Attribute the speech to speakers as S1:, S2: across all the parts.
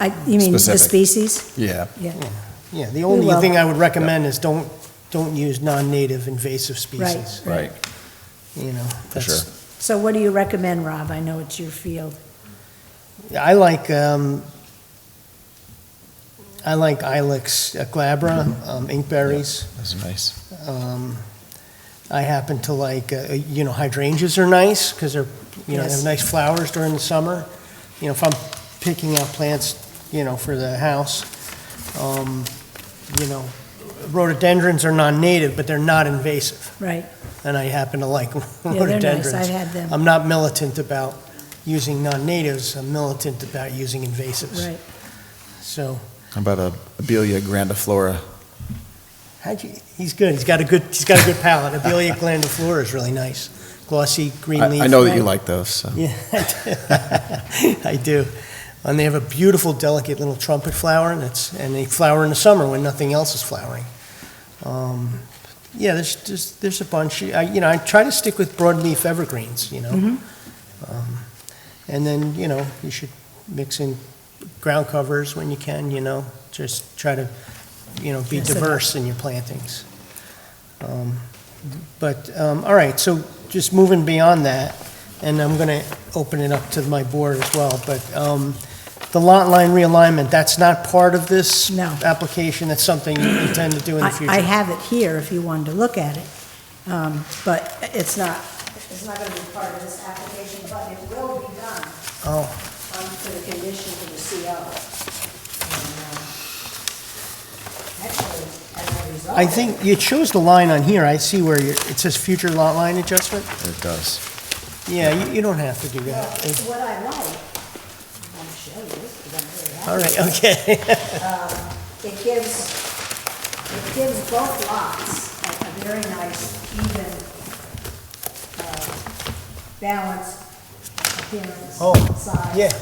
S1: I, you mean the
S2: Specific.
S1: species?
S2: Yeah.
S1: Yeah,
S3: Yeah, the only
S1: will.
S3: thing I would recommend is don't, don't use non-native invasive species.
S2: Right,
S3: You know,
S2: for sure.
S3: that's,
S1: so what do you recommend, Rob? I know it's your field.
S3: I like, um, I like Ilex uh, glabra,
S2: Mm-hmm.
S3: um, inkberries.
S2: That's nice.
S3: Um, I happen to like, uh, you know, hydrangeas are nice because they're, you know, they
S1: Yes.
S3: have nice flowers during the summer. You know, if I'm picking out plants, you know, for the house, um, you know, rhododendrons are non-native, but they're not invasive,
S1: Right,
S3: and I happen to like
S1: yeah, they're nice, I've
S3: rhododendrons.
S1: had them,
S3: I'm not militant about using non-natives, I'm militant about using invasives.
S1: right.
S3: So,
S2: How about a Abelia grandiflora?
S3: how'd you, he's good, he's got a good, he's got a good palate. Abelia glandiflora is really nice, glossy, green leaf.
S2: I I know that you
S1: right.
S2: like those, so.
S3: Yeah, I do. I do. And they have a beautiful, delicate little trumpet flower, and it's and they flower in the summer when nothing else is flowering. Um, yeah, there's, there's there's a bunch. I, you know, I try to stick with broadleaf evergreens. You know,
S1: Mm-hmm.
S3: um, and then you know you should mix in ground covers when you can. You know, just try to you know be
S1: Yes, I do.
S3: diverse in your plantings. Um, but um, all right, so just moving beyond that, and I'm going to open it up to my board as well, but um, the lot line realignment, that's not part of this
S1: No.
S3: application, that's something you intend to do in the
S1: I, I
S3: future?
S1: have it here if you wanted to look at it, um, but it's not, it's not gonna be part of this application, but it will be done.
S3: Oh,
S1: um, for the condition for the CO. And, um, Actually, as a result.
S3: I think, you chose the line on here, I see where you're, it says future lot line adjustment?
S2: It does.
S3: Yeah, you, you don't have to do
S1: Well,
S3: that. It-
S1: What I like, I'll show you, because I'm very happy.
S3: All right, okay.
S1: It gives, it gives both lots a a very nice even uh, balanced appearance.
S3: Oh,
S1: size.
S3: Yeah,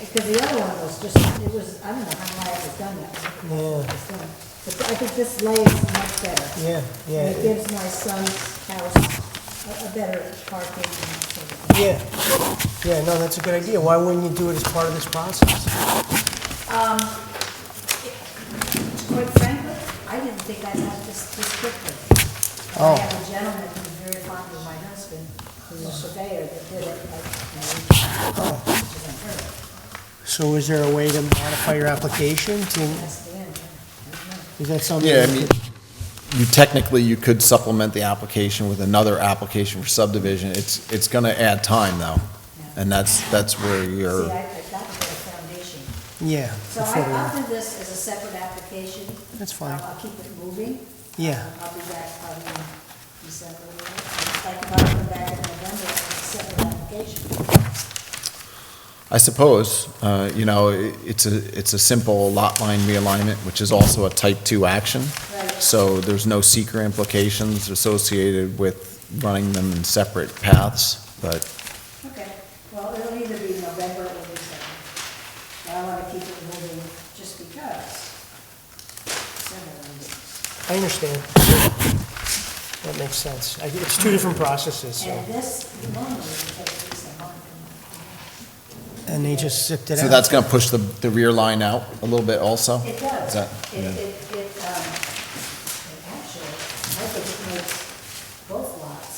S1: Because the other one was just, it was, I don't know how wide it was done that way.
S3: Yeah.
S1: It's done. But I think this lays much better.
S3: yeah,
S1: And it
S3: yeah,
S1: gives my son's house a, a better parking. and sort of-
S3: yeah. Yeah, no, that's a good idea. Why wouldn't you do it as part of this process?
S1: Quite frankly, I didn't think I'd have this, this quickly. I
S3: Oh.
S1: have a gentleman who's very fond of my husband, who's a surveyor that did it like, you know, which is unheard of.
S3: So is there a way to modify your application to,
S1: That's the end. I don't know.
S3: is that something?
S2: Yeah, I mean, you technically, you could supplement the application with another application for subdivision. It's, it's gonna add time, though. And that's, that's where
S1: See,
S2: you're,
S1: I, I got a better foundation.
S3: Yeah.
S1: So I, I'll do this as a separate application.
S3: That's fine.
S1: I'll I'll keep it moving.
S3: Yeah.
S1: I'll be back probably in December. Like if I come back in November, I'll set an application.
S2: I suppose, uh, you know, i- it's a, it's a simple lot line realignment, which is also a type two action.
S1: Right.
S2: So there's no seeker implications associated with running them in separate paths, but
S1: Okay. Well, it'll either be November or December. But I want to keep it moving just because. Several meetings.
S3: I understand. That makes sense. I- It's two different processes, so,
S1: And this normally takes at least a month.
S3: and they just zipped it out.
S2: So that's going to push the, the rear line out a little bit
S1: It
S2: also? Oh, Is
S1: does.
S2: that-
S1: It, it, it, um, it actually, I think it makes both lots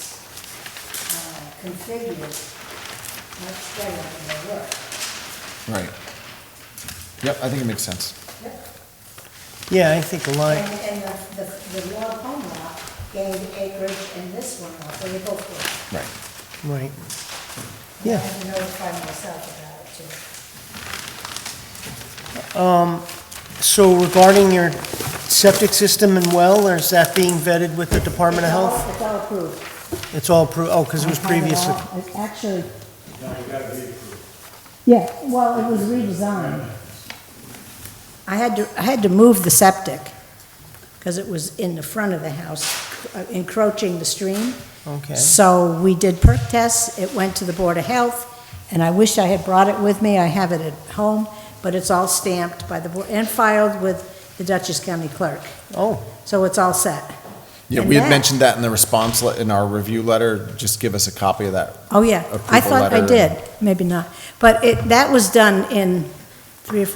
S1: uh, configured much better than they were.
S2: Right. Yep, I think it makes sense.
S3: Yeah, I think the line,
S1: And, and the, the, the log home lot gained acreage and this one lot, so they both were.
S2: Right.
S3: right.
S1: I
S3: Yeah,
S1: had to notify myself about it too.
S3: so regarding your septic system and well, or is that being vetted with the Department of
S1: It's all-
S3: Health?
S1: It's all approved.
S3: It's all approved, oh, because it was
S1: I have
S3: previous.
S1: all- it's Actually. Yeah, well, it was redesigned. I had to, I had to move the septic, because it was in the front of the house, uh, encroaching the stream.
S3: Okay,
S1: So we did perk tests, it went to the Board of Health, and I wish I had brought it with me, I have it at home, but it's all stamped by the board, and filed with the Dutchess County Clerk,
S3: oh,
S1: so it's all set.
S2: Yeah,
S1: And
S2: we had
S1: that-
S2: mentioned that in the response, le- in our review letter, just give us a copy of that.
S1: Oh, yeah, I
S2: Approval
S1: thought I
S2: letter.
S1: did, maybe not, but it, that was done in three or four